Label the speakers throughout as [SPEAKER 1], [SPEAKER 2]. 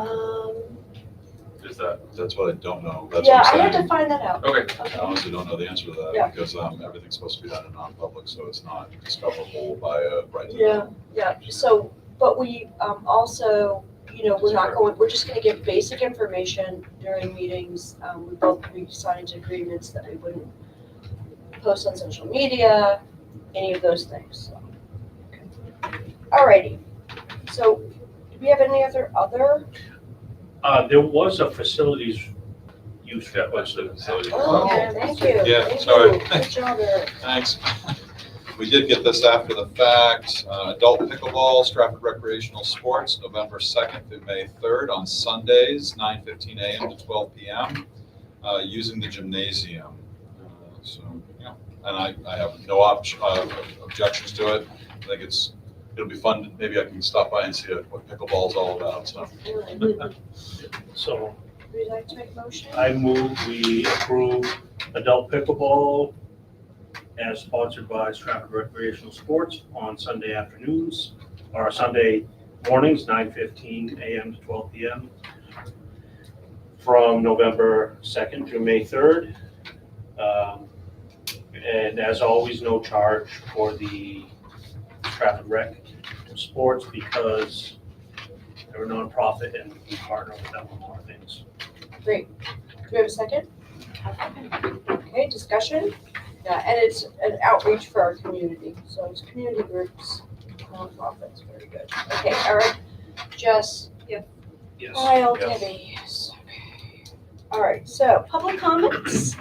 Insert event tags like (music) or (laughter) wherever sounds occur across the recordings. [SPEAKER 1] Um,
[SPEAKER 2] Is that,
[SPEAKER 3] That's what I don't know. That's
[SPEAKER 1] yeah,
[SPEAKER 3] what
[SPEAKER 1] I
[SPEAKER 3] I'm
[SPEAKER 1] have to
[SPEAKER 3] saying.
[SPEAKER 1] find that out.
[SPEAKER 2] okay,
[SPEAKER 3] I honestly don't know the answer to
[SPEAKER 1] Yeah.
[SPEAKER 3] that because um, everything's supposed to be done in non-public, so it's not discoverable by a right to
[SPEAKER 1] Yeah, yeah, so, but we, um, also, you know, we're not going, we're just gonna give basic information during meetings. Um, we both, we signed agreements that we wouldn't post on social media, any of those things, so. Alrighty, so, do we have any other, other?
[SPEAKER 4] Uh, there was a facilities use that was the
[SPEAKER 2] Facility.
[SPEAKER 1] Oh, thank you,
[SPEAKER 3] Yeah,
[SPEAKER 1] thank
[SPEAKER 3] sorry.
[SPEAKER 1] you, good job, Eric.
[SPEAKER 3] Thanks. We did get this after the fact. Uh, Adult pickleball, Stratford recreational sports, November 2nd through May 3rd on Sundays, 9:15 a.m. to 12 p.m., uh, using the gymnasium. Uh, So, yeah, and I, I have no obj- uh, objections to it. I think it's, it'll be fun. Maybe I can stop by and see what pickleball's all about, so.
[SPEAKER 4] So
[SPEAKER 1] Would you like to make a motion?
[SPEAKER 4] I move we approve adult pickleball as sponsored by Stratford Recreational Sports on Sunday afternoons or Sunday mornings, nine fifteen AM to twelve PM. From November second to May third. Um, and as always, no charge for the Stratford Rec Sports because they're a nonprofit and we partner with them on a lot of things.
[SPEAKER 1] Great. Do we have a second? Okay, discussion? Yeah, and it's an outreach for our community, so it's community groups, nonprofits, very good. Okay, Eric, Jess,
[SPEAKER 4] Yes.
[SPEAKER 1] Kyle,
[SPEAKER 4] yes.
[SPEAKER 1] Debbie, yes, okay. All right, so, public comments?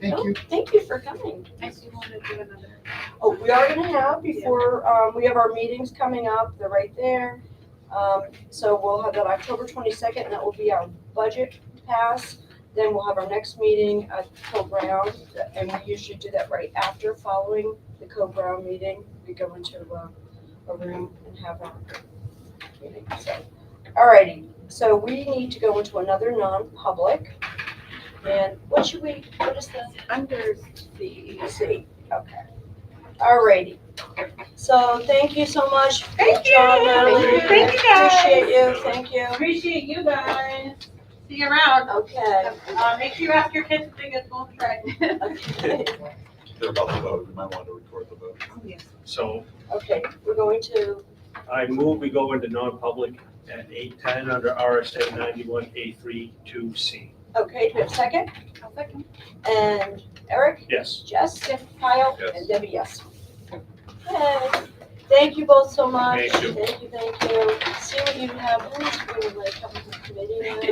[SPEAKER 5] Thank you.
[SPEAKER 1] Oh, Thank you for coming.
[SPEAKER 5] I do want to do another.
[SPEAKER 1] Oh, we are gonna have before, um, we have our meetings coming up, they're right there. Um, so we'll have that October twenty-second, and that will be our budget pass. Then we'll have our next meeting at Co Brown, and we usually do that right after, following the Co Brown meeting. We go into uh, a room and have our meeting, so. Alrighty, so we need to go into another non-public. And what should we, what is the?
[SPEAKER 5] Under the.
[SPEAKER 1] See, okay. Alrighty. So thank you so much. Good
[SPEAKER 5] Thank you.
[SPEAKER 1] job, Natalie.
[SPEAKER 5] Thank you, guys.
[SPEAKER 1] Appreciate you, thank you.
[SPEAKER 5] Appreciate you guys. See you around.
[SPEAKER 1] Okay.
[SPEAKER 5] Uh, make sure you ask your kids to take us home track. (laughs)
[SPEAKER 1] Okay,
[SPEAKER 3] They're about to vote. We might want to record the vote.
[SPEAKER 4] So
[SPEAKER 1] Okay. we're going to,
[SPEAKER 4] I move we go into non-public at eight ten under RSA ninety-one A three two C.
[SPEAKER 1] okay, do we have a second?
[SPEAKER 5] I'll second.
[SPEAKER 1] And Eric,
[SPEAKER 4] Yes.
[SPEAKER 1] Jess, Kyle,
[SPEAKER 3] Yes.
[SPEAKER 1] and Debbie, yes. Okay, thank you both so much.
[SPEAKER 4] Thank you.
[SPEAKER 1] Thank you, thank you. See what you have, who's really like coming to committee now.